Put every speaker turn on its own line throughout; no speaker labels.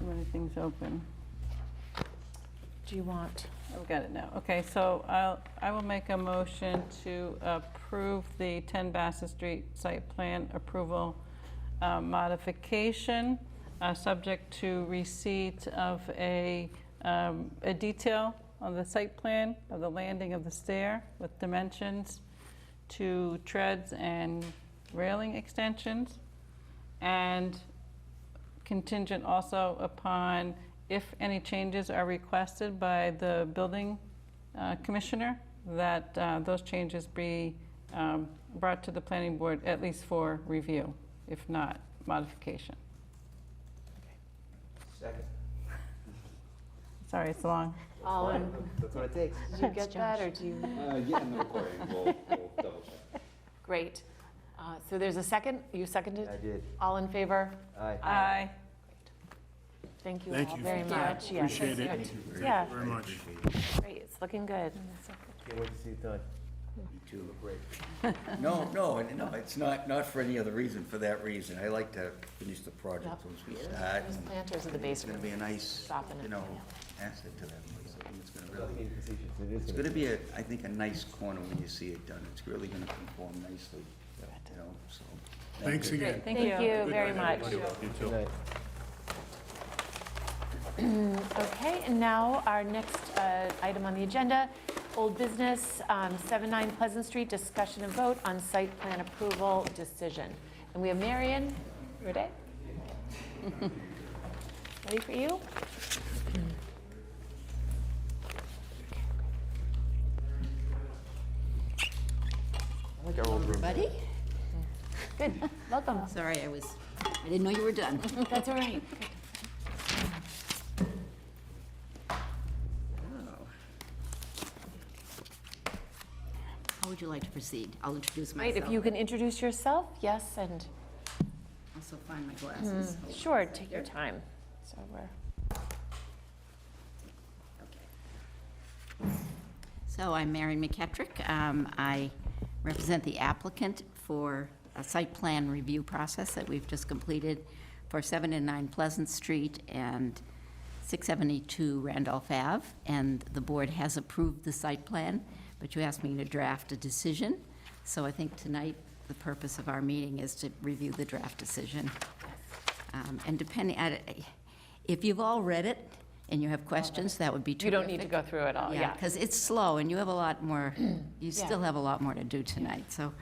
many things open.
Do you want?
I've got it now. Okay, so I'll, I will make a motion to approve the 10 Bassett Street site plan approval uh, modification, uh, subject to receipt of a, um, a detail on the site plan of the landing of the stair with dimensions to treads and railing extensions, and contingent also upon if any changes are requested by the building uh, commissioner, that uh, those changes be um, brought to the planning board at least for review, if not modification.
Second.
Sorry, it's long.
All
Right,
in.
That's what it takes.
Did you get
Thanks,
that,
Josh.
or do you?
Uh, yeah, in the recording, we'll, we'll double check.
Great. Uh, So there's a second? You seconded?
I did.
All in favor?
Aye.
Aye.
Thank you
Thank
all
you.
very
Thank you.
much. Yeah,
Appreciate it.
it's
Thank you
good. Yeah,
Very much.
great. It's looking good.
Can't wait to see it done. You two look great.
No, no, and no, it's not, not for any other reason, for that reason. I like to finish the project
Yep.
once we start.
Those planters in
and
the
It's gonna
basement.
be a nice,
Stopping it.
you know, asset to that place. I think it's gonna
Not
really,
being facetious, it is
it's
what
gonna
it
be a, I think, a nice corner when you see it done. It's really gonna conform nicely, you know, so.
Thanks again.
Thank
Thank you
Good
very
night,
much.
everybody. You
is.
too.
Right.
Okay, and now our next uh, item on the agenda, old business, um, 79 Pleasant Street, discussion and vote on site plan approval decision. And we have Marion Rude. Ready for you?
I like our old room.
Buddy?
Good, welcome.
Sorry, I was, I didn't know you were done.
That's all right.
How would you like to proceed? I'll introduce
Right,
myself.
if you can introduce yourself, yes, and,
Also find my glasses. Hold on
Hmm,
a
sure,
second
take
here.
your time. So we're,
Okay. So I'm Mary McKetrick. Um, I represent the applicant for a site plan review process that we've just completed for 7 and 9 Pleasant Street and 672 Randolph Ave, and the board has approved the site plan, but you asked me to draft a decision. So I think tonight, the purpose of our meeting is to review the draft decision. Um, And depending, I- if you've all read it and you have questions, that would be terrific.
you don't need to go through it
Oh,
all, yeah.
Because it's slow, and you have a lot more, you still have a lot more to do tonight, so,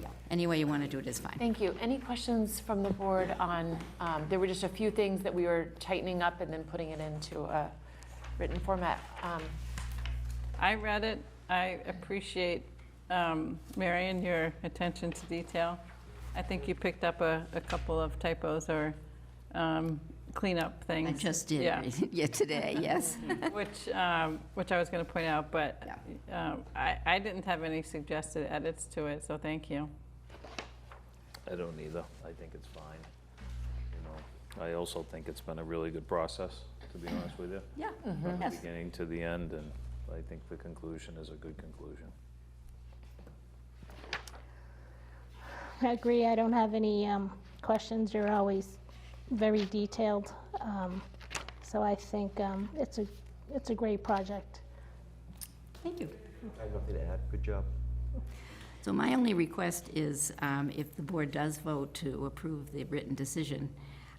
yeah, any way you want to do it is fine.
Thank you. Any questions from the board on, um, there were just a few things that we were tightening up and then putting it into a written format. Um,
I read it. I appreciate, um, Marion, your attention to detail. I think you picked up a, a couple of typos or um, cleanup things.
I just did,
Yeah.
yeah, today, yes.
Which, um, which I was going to point out, but um, I, I didn't have any suggested edits to it, so thank you.
I don't either. I think it's fine. You know, I also think it's been a really good process, to be honest with you.
Yeah,
Mm-hmm.
From the
yes.
beginning to the end, and I think the conclusion is a good conclusion.
I agree, I don't have any um, questions, you're always very detailed. Um, So I think um, it's a, it's a great project.
Thank you.
I have nothing to add. Good job.
So my only request is, um, if the board does vote to approve the written decision,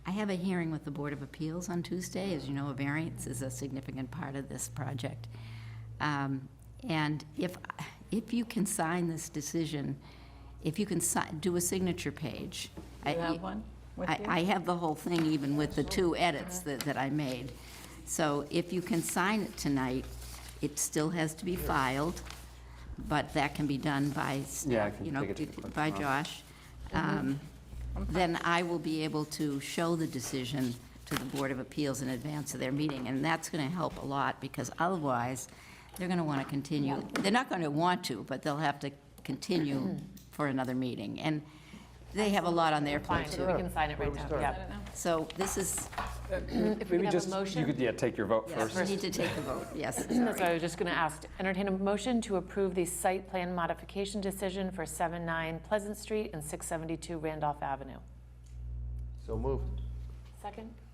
I have a hearing with the Board of Appeals on Tuesday. As you know, a variance is a significant part of this project. Um, And if, if you can sign this decision, if you can si- do a signature page. I-
You have one with
I,
you?
I have the whole thing even with the two edits that, that I made. So if you can sign it tonight, it still has to be filed, but that can be done by, staff,
Yeah, I can
you know,
take it to the Mm-hmm.
by
clerk
Josh. Um, Then I will be able to show the decision to the Board of Appeals in advance of their meeting, and that's going to help a lot, because otherwise, they're going to want to continue. They're not going to want to, but they'll have to continue
Mm-hmm.
for another meeting. And they have a lot on their plate,
Fine,
too.
so we can sign it right now. Yeah.
So this is,
If we could have a motion.
You could, yeah, take your vote
yes,
first.
we need to take the vote, yes.
That's what I was just going to ask. Entertain a motion to approve the site plan modification decision for 79 Pleasant Street and 672 Randolph Avenue.
So moved.
Second?